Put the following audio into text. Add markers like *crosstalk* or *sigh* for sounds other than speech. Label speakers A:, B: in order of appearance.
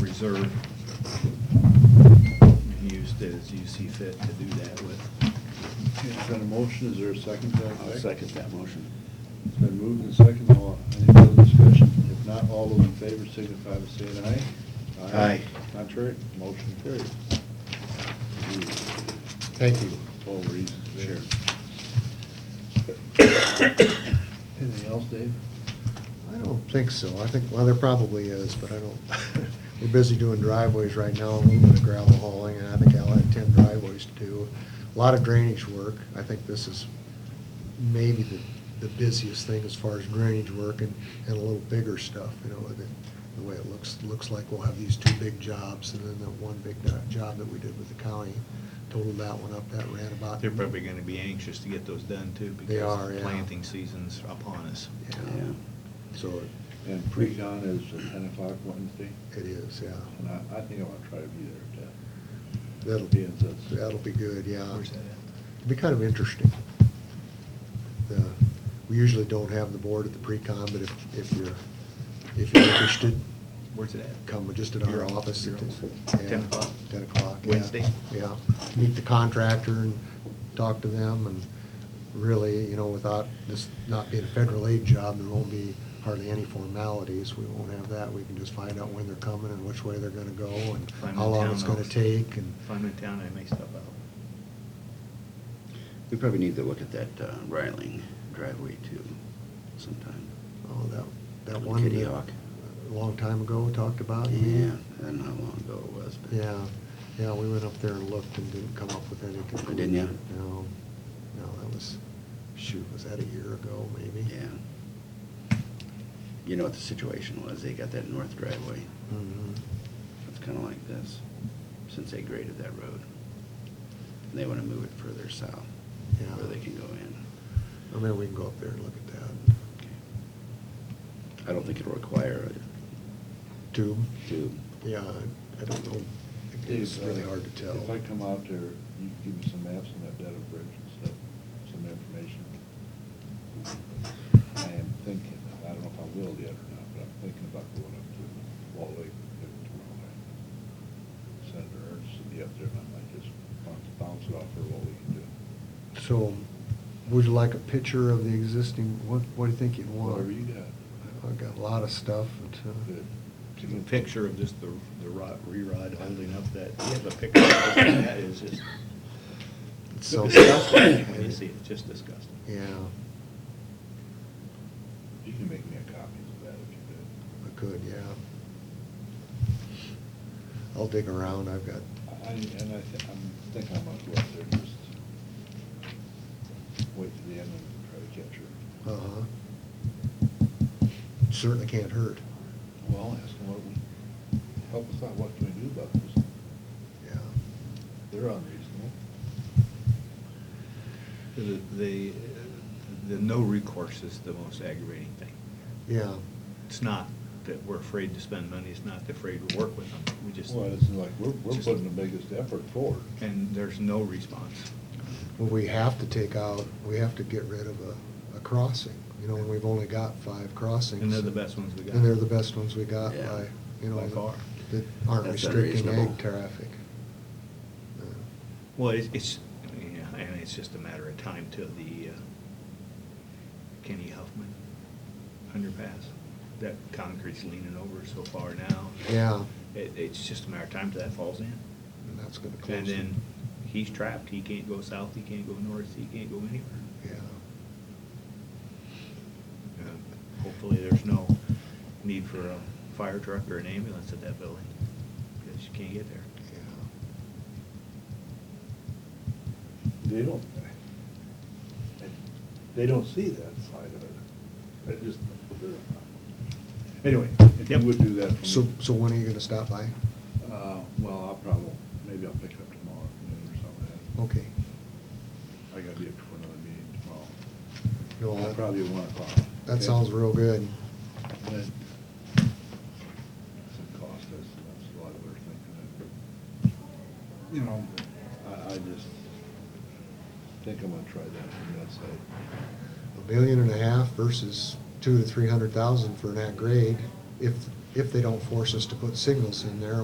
A: reserve. And used as you see fit to do that with.
B: Is that a motion, is there a second to that?
C: I'll
B: effect?
C: second that motion.
B: It's been moved and seconded, all, any further discussion? If not, all those in favor signify by saying aye.
A: Aye.
B: Contrary, motion carries.
D: Thank you.
B: All reasons there.
A: Sure.
B: Anything else, Dave?
D: I don't think so. I think, well, there probably is, but I don't, *laughs* we're busy doing driveways right now, a little bit of gravel hauling, and I think I'll have ten driveways to do. A lot of drainage work. I think this is maybe the, the busiest thing as far as drainage work and, and a little bigger stuff, you know, the, the way it looks, looks like we'll have these two big jobs and then the one big do- job that we did with the county. Totaled that one up, that ran about.
A: They're probably gonna be anxious to get those done too,
D: They are,
A: because
D: yeah.
A: planting season's upon us.
D: Yeah, so it-
B: And pre-con is at ten o'clock Wednesday,
D: it is, yeah.
B: and I, I think I want to try to be there at
D: That'll
B: Be
D: be,
B: in this.
D: that'll be good, yeah.
A: Where's that
D: It'd be kind of interesting. The- We usually don't have the board at the pre-con, but if, if you're, if you're interested,
A: Where's it at?
D: come just at our
A: Your-
D: office.
A: your
D: at the-
A: office. 10
D: yeah,
A: o'clock?
D: Ten o'clock, yeah.
A: Wednesday?
D: Yeah, meet the contractor and talk to them, and really, you know, without this not being a federal aid job, there won't be hardly any formalities, we won't have that, we can just find out when they're coming and which way they're gonna go, and
A: If I'm in
D: how long
A: town,
D: it's gonna
A: I'll-
D: take, and,
A: If I'm in town, I may stop out.
C: We probably need to look at that uh, Riling driveway too sometime.
D: oh, that, that one.
C: Kitty
D: that
C: Hawk.
D: A long time ago, talked about. you mean?
C: Yeah, I don't know how long ago it was, but.
D: Yeah, yeah, we went up there and looked and didn't come up with any conclusion.
C: Didn't ya?
D: No, no, that was, shoot, was that a year ago, maybe?
C: Yeah. You know what the situation was, they got that north driveway,
D: Mhm.
C: it's kinda like this, since they graded that road. And they wanna move it further south,
D: Yeah.
C: where they can go in.
D: Well, maybe we can go up there and look at that.
C: I don't think it'll require
D: Tube,
C: a tube.
D: yeah, I- I don't know, it's
B: Dave,
D: really
B: uh,
D: hard to tell.
B: If I come out there, you can give me some maps on that data bridge and stuff, some information. I am thinking, I don't know if I will yet or not, but I'm thinking about going up to Wall Lake tomorrow night. Senator Ernst will be up there, and I might just bounce bounce it off her while we can do.
D: So, would you like a picture of the existing, what, what do you think you'd want?
B: Whatever you got.
D: I've got a lot of stuff, but, uh,
B: Good.
A: Give me a picture of just the, the rod, re-rod holding up that, you have a picture of what that is just
D: it's so.
A: *coughs* disgusting when you see it, just disgusting.
D: Yeah,
B: You can make me a copy of that if you could.
D: I could, yeah. I'll dig around, I've got
B: I, and I thi- I'm think I'm gonna go up there and just wait to the end and try to catch her.
D: Uh-huh. Certainly can't hurt,
B: Well, ask them what we, help us out, what can we do about this?
D: yeah.
B: They're unreasonable.
A: The, the, the no recourse is the most aggravating thing.
D: Yeah,
A: It's not that we're afraid to spend money, it's not that afraid to work with them, we just,
B: Well, it's like, we're, we're
A: just-
B: putting the biggest effort forward.
A: and there's no response.
D: well, we have to take out, we have to get rid of a, a crossing, you know, and we've only got five crossings.
A: And they're the best ones we got.
D: And they're the best ones we got
C: Yeah.
D: by, you know.
A: By far.
D: That aren't
C: That's
D: restricting
C: unreasonable.
D: ag traffic. Uh,
A: Well, it's, it's, yeah, and it's just a matter of time till the uh, Kenny Huffman underpass. That concrete's leaning over so far now.
D: Yeah,
A: It, it's just a matter of time till that falls in.
D: and that's gonna close.
A: And
D: it.
A: then he's trapped, he can't go south, he can't go north, he can't go anywhere.
D: Yeah,
A: Uh, Hopefully, there's no need for a fire truck or an ambulance at that building, because you can't get there.
D: yeah.
B: They don't, they don't see that side of it. I just, anyway, if you
A: Yep.
B: would do that for me.
D: So, so when are you gonna stop by?
B: Uh, well, I'll probably, maybe I'll pick it up tomorrow afternoon or
A: Oh,
B: something.
D: Okay.
B: I gotta be up for another meeting
D: No,
B: tomorrow.
D: that-
B: Probably one o'clock.
D: That sounds real good.
B: Some cost us, that's a lot of we're thinking of. You know, I, I just think I'm gonna try that from that side.
D: a million and a half versus two to three hundred thousand for an at grade, if, if they don't force us to put signals in there,